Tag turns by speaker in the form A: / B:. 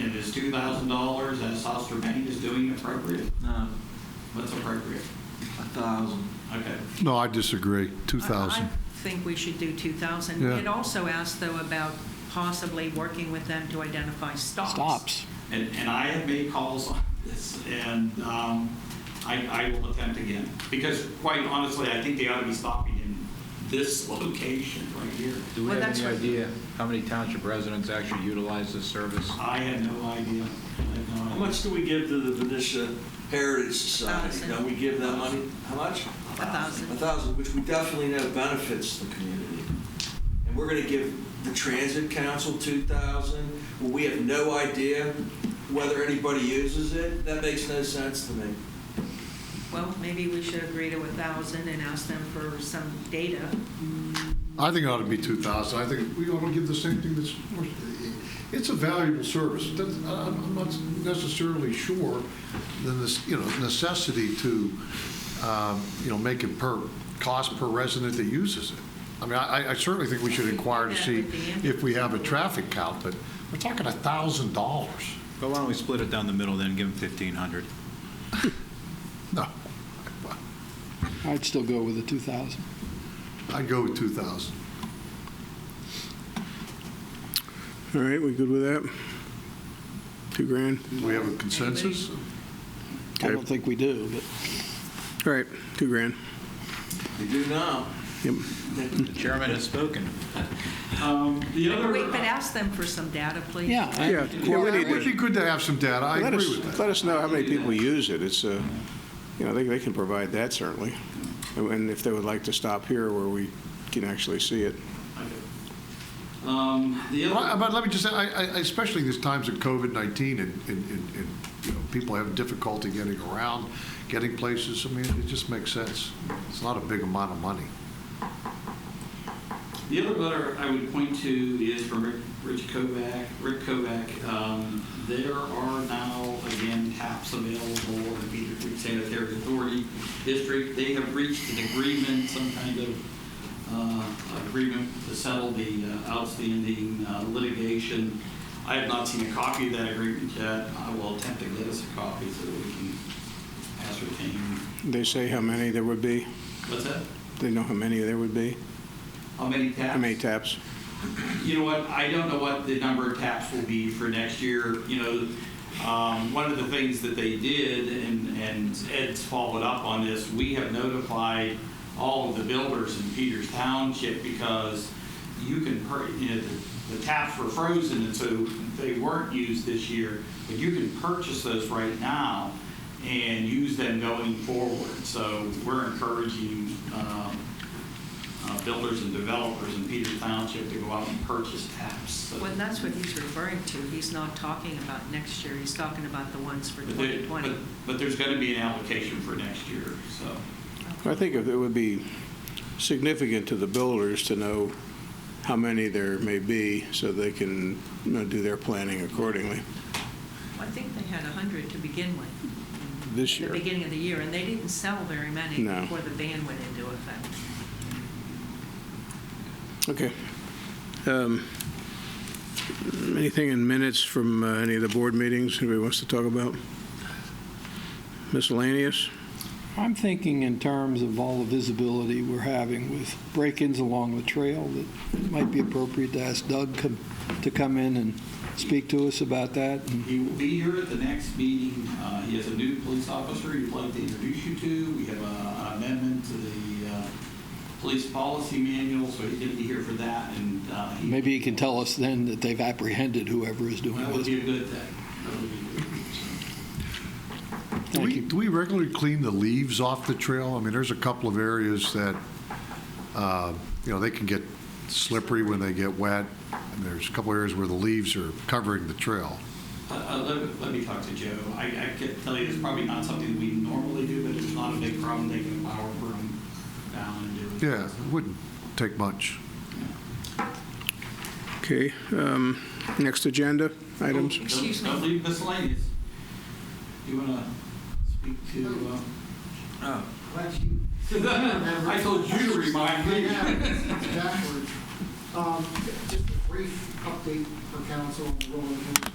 A: two thousand dollars as Soster Bank is doing appropriate?
B: No,
A: What's appropriate?
B: Um, a thousand.
A: Okay.
C: No, I disagree.
D: I
C: 2,000.
D: think we should do 2,000.
C: Yeah.
D: It also asked, though, about possibly working with them to identify stops.
E: Stops.
A: And, and I have made calls on this, and um, I, I will attempt again. Because quite honestly, I think they ought to be stopping in this location right here.
B: Do we
D: Well,
B: have
D: that's
B: any
D: what-
B: idea how many township residents actually utilize this service?
A: I had no idea. I had no
F: How
A: idea.
F: much do we give to the Venetia Heritage Society?
D: Thousand.
F: Don't we give that money? How much?
D: A thousand.
F: A thousand, which we definitely know benefits the community. And we're gonna give the Transit Council two thousand, well, we have no idea whether anybody uses it? That makes no sense to me.
D: Well, maybe we should agree to 1,000 and ask them for some data.
C: I think it ought to be 2,000. I think we ought to give the same thing that's, it's a valuable service. That's- I'm I'm not necessarily sure the, nec- you know, necessity to, um, you know, make it per, cost per resident that uses it. I mean, I I certainly think we should inquire to see if we have a traffic count, but we're talking $1,000.
G: But why don't we split it down the middle then, give them 1,500?
C: No,
E: I'd still go with the 2,000.
C: I'd go with 2,000.
H: All right, we good with that? Two grand?
C: Do we have a consensus?
E: I
H: Okay.
E: don't think we do, but.
H: All right, two grand.
F: They do now.
H: Yep.
G: The chairman has spoken.
A: Um, The other.
D: Wait, but ask them for some data, please.
E: Yeah. I-
H: Yeah, yeah, we
C: It
H: need
C: would be
H: to,
C: good to have some data. I
H: let
C: agree with that.
H: us, let us know how many people use it. It's a, you know, they, they can provide that certainly. And if they would like to stop here where we can actually see it.
A: Okay. Um, The other.
C: Well, But let me just say, I, I, especially these times of COVID-19 and, and, and, and, you know, people having difficulty getting around, getting places, I mean, it just makes sense. It's not a big amount of money.
A: The other letter I would point to is from Rick- Rich Kovac, Rick Kovac. Um, There are now, again, taps available in the Peter Creek Sanitary Authority District. They have reached an agreement, some kind of uh, agreement to settle the uh, outstanding uh, litigation. I have not seen a copy of that agreement yet. I will attempt to get us a copy so that we can ascertain.
H: They say how many there would be?
A: What's that?
H: They know how many there would be?
A: How many taps?
H: How many taps?
A: You know what, I don't know what the number of taps will be for next year, you know, um, one of the things that they did, and, and Ed's followed up on this, we have notified all of the builders in Peters Township because you can, pur- you know, the- the taps were frozen, and so they weren't used this year, but you can purchase those right now and use them going forward, so we're encouraging, um, uh, builders and developers in Peters Township to go out and purchase taps. So-
D: Well, that's what he's referring to. He's not talking about next year. He's talking about the ones for
A: But they-
D: 2020.
A: but- But there's going to be an application for next year, so.
H: I think it would be significant to the builders to know how many there may be so they can, you know, do their planning accordingly
D: I think they had 100 to begin with.
H: this year.
D: At the beginning of the year, and they didn't sell very many
H: No.
D: before the ban went into effect.
H: Okay. Um, Anything in minutes from uh, any of the board meetings anybody wants to talk about? Miscellaneous?
E: I'm thinking in terms of all the visibility we're having with break-ins along the trail, that it might be appropriate to ask Doug come- to come in and speak to us about that. and-
A: He will be here at the next meeting. Uh, He is a new police officer he'd like to introduce you to. We have a- an amendment to the uh, police policy manual, so he's going to be here for that, and uh, he.
E: Maybe he can tell us then that they've apprehended whoever is doing
A: That would
E: this.
A: be a good thing. That would be a good thing.
C: Do
E: Thank
C: we,
E: you.
C: do we regularly clean the leaves off the trail? I mean, there's a couple of areas that, uh, you know, they can get slippery when they get wet. And there's a couple areas where the leaves are covering the trail.
A: Uh, uh, Let let me talk to Joe. I I can tell you, it's probably not something we normally do, but it's not a big problem. They can power broom down and do it.
C: Yeah, it wouldn't take much.
H: Okay. um, Next agenda items?
A: Don't-
D: Excuse me.
A: Don't leave miscellaneous. You want to speak to, uh,
B: Oh,
I: Glad you
A: I told you to remind me.
I: backwards. Um, Just a brief update for council on the rolling hills